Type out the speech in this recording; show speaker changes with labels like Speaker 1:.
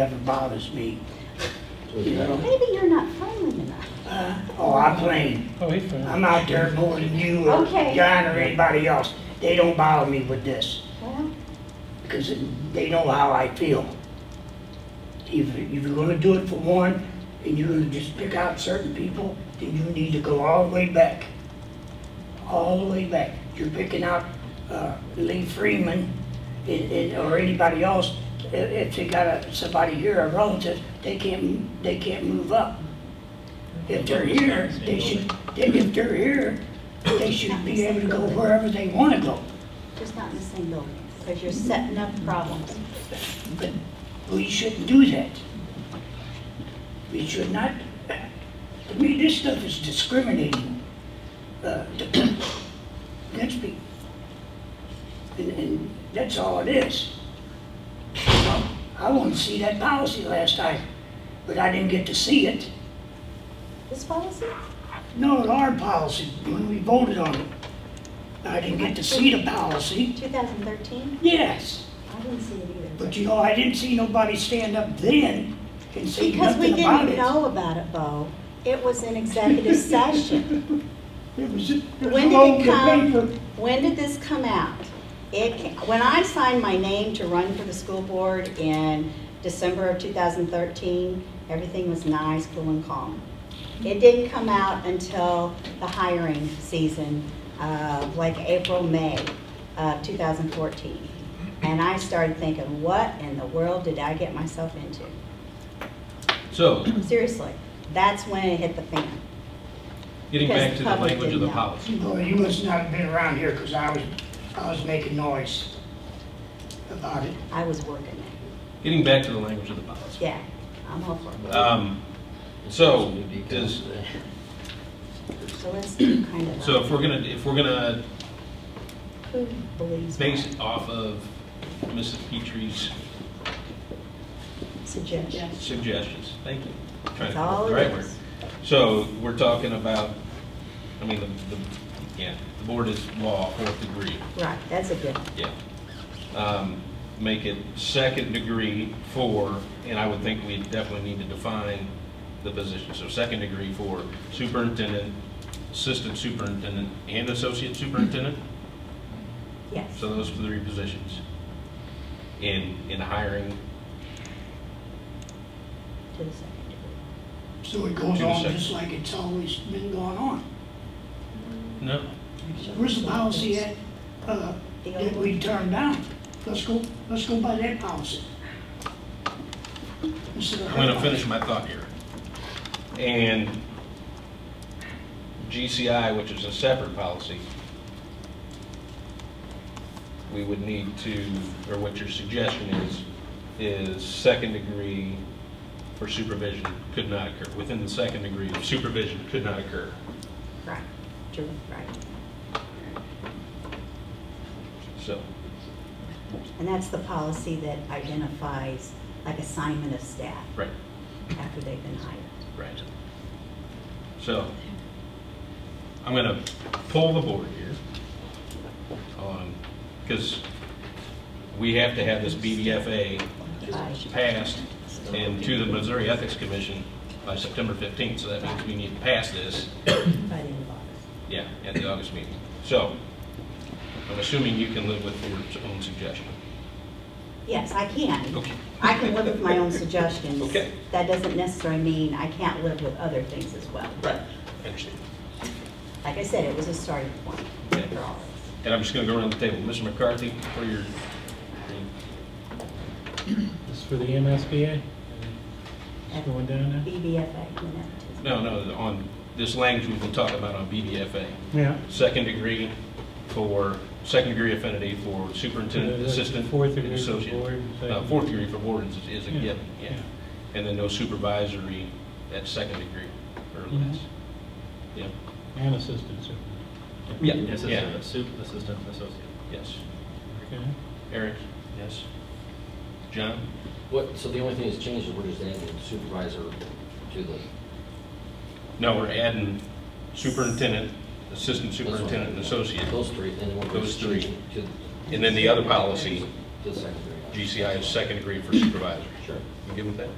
Speaker 1: ever bothers me. You know?
Speaker 2: Maybe you're not friendly enough.
Speaker 1: Uh, Oh, I blame,
Speaker 3: Oh, he's fine.
Speaker 1: I'm out there more than you or
Speaker 2: Okay.
Speaker 1: John or anybody else. They don't bother me with this,
Speaker 2: Well,
Speaker 1: because they know how I feel. If if you're gonna do it for one, and you're gonna just pick out certain people, then you need to go all the way back. All the way back. You're picking out uh, Lee Freeman and- and- or anybody else, i- if they got a- somebody here, a relative, they can't, they can't move up. If they're here, they should, then if they're here, they should be able to go wherever they want to go.
Speaker 2: just not in the same building, because you're setting up problems.
Speaker 1: But we shouldn't do that. We should not, to me, this stuff is discriminating uh, against people. And, and that's all it is. You know, I wanted to see that policy last time, but I didn't get to see it.
Speaker 2: This policy?
Speaker 1: No, our policy, when we voted on it, I didn't get to see the policy.
Speaker 2: 2013?
Speaker 1: Yes,
Speaker 2: I didn't see it either.
Speaker 1: but you know, I didn't see nobody stand up then and say
Speaker 2: Because we
Speaker 1: nothing about
Speaker 2: didn't
Speaker 1: it.
Speaker 2: know about it, Bo. It was an executive session.
Speaker 1: It was, it was
Speaker 2: When
Speaker 1: all
Speaker 2: did it
Speaker 1: the
Speaker 2: come,
Speaker 1: paper.
Speaker 2: when did this come out? It, ca- when I signed my name to run for the school board in December of 2013, everything was nice, cool and calm. It didn't come out until the hiring season, uh, like April, May of 2014. And I started thinking, what in the world did I get myself into?
Speaker 4: So,
Speaker 2: Seriously, that's when it hit the fan.
Speaker 4: getting back to the
Speaker 2: Because the public
Speaker 4: language of the
Speaker 2: didn't know.
Speaker 4: policy.
Speaker 1: Boy, you must not have been around here, because I was, I was making noise about it.
Speaker 2: I was working it.
Speaker 4: Getting back to the language of the policy.
Speaker 2: Yeah, I'm hopeful.
Speaker 4: Um, So, does,
Speaker 2: So let's do kind of.
Speaker 4: so
Speaker 2: a-
Speaker 4: if we're gonna, if we're gonna
Speaker 2: Who believes
Speaker 4: base
Speaker 2: my
Speaker 4: it off of Mrs. Petrie's
Speaker 2: suggestion?
Speaker 4: suggestions, thank you. Trying
Speaker 2: That's
Speaker 4: to come up
Speaker 2: all
Speaker 4: with the
Speaker 2: it
Speaker 4: right word.
Speaker 2: is.
Speaker 4: So, we're talking about, I mean, the, the, yeah, the board is law, fourth degree,
Speaker 2: Right, that's a good,
Speaker 4: yeah. Um, Make it second degree for, and I would think we definitely need to define the position. So second degree for superintendent, assistant superintendent, and associate superintendent?
Speaker 2: yes.
Speaker 4: So those are the three positions. In, in hiring,
Speaker 2: To the second degree.
Speaker 1: So it goes
Speaker 4: To the
Speaker 1: on
Speaker 4: second.
Speaker 1: just like it's always been going on.
Speaker 4: no,
Speaker 1: Where's the policy at, uh,
Speaker 2: The
Speaker 1: that
Speaker 2: old
Speaker 1: we turned down? Let's go, let's go by that policy. Instead of
Speaker 4: I'm gonna
Speaker 1: that
Speaker 4: finish my thought here. And GCI, which is a separate policy, we would need to, or what your suggestion is, is second degree for supervision could not occur. Within the second degree, supervision could not occur.
Speaker 2: Right, true, right.
Speaker 4: So,
Speaker 2: And that's the policy that identifies like assignment of staff
Speaker 4: right,
Speaker 2: after they've been hired.
Speaker 4: right. So, I'm gonna pull the board here on, because we have to have this BDFA
Speaker 2: By-
Speaker 4: passed and to the Missouri Ethics Commission by September 15th, so that means we need to pass this,
Speaker 2: by the end of August.
Speaker 4: yeah, at the August meeting. So, I'm assuming you can live with your own suggestion.
Speaker 2: Yes, I can.
Speaker 4: Okay.
Speaker 2: I can live with my own suggestions.
Speaker 4: Okay.
Speaker 2: That doesn't necessarily mean I can't live with other things as well.
Speaker 4: Right. I understand.
Speaker 2: Like I said, it was a starting point
Speaker 4: Okay.
Speaker 2: for all of
Speaker 4: And I'm just going to go around the table. Mr. McCarthy, for your,
Speaker 3: This is for the MSBA? It's going down
Speaker 2: us. BBFA, you know, to-
Speaker 4: no, no, on this language we will talk about on BDFA.
Speaker 3: there? Yeah.
Speaker 4: Second degree for, second degree affinity for superintendent, assistant,
Speaker 3: Fourth
Speaker 4: and
Speaker 3: degree for
Speaker 4: associate.
Speaker 3: board and
Speaker 4: Uh,
Speaker 3: second-
Speaker 4: Fourth degree for board is is a
Speaker 3: Yeah,
Speaker 4: given, yeah.
Speaker 3: yeah.
Speaker 4: And then no supervisory at second degree or less.
Speaker 3: Mm-hmm.
Speaker 4: Yeah,
Speaker 3: And assistant superintendent.
Speaker 4: Yeah.
Speaker 5: Assistant, assu- assistant, associate.
Speaker 4: yes.
Speaker 3: Okay.
Speaker 4: Eric? Yes. John?
Speaker 6: What, so the only thing that's changed is we're just adding supervisor to the,
Speaker 4: No, we're adding superintendent, assistant
Speaker 6: That's what I'm
Speaker 4: superintendent, and associate.
Speaker 6: those three, then we're
Speaker 4: Those
Speaker 6: just
Speaker 4: three.
Speaker 6: changing to.
Speaker 4: And then the other policy,
Speaker 6: To the secondary.
Speaker 4: GCI is second degree for supervisors.
Speaker 6: Sure.
Speaker 4: You good with that?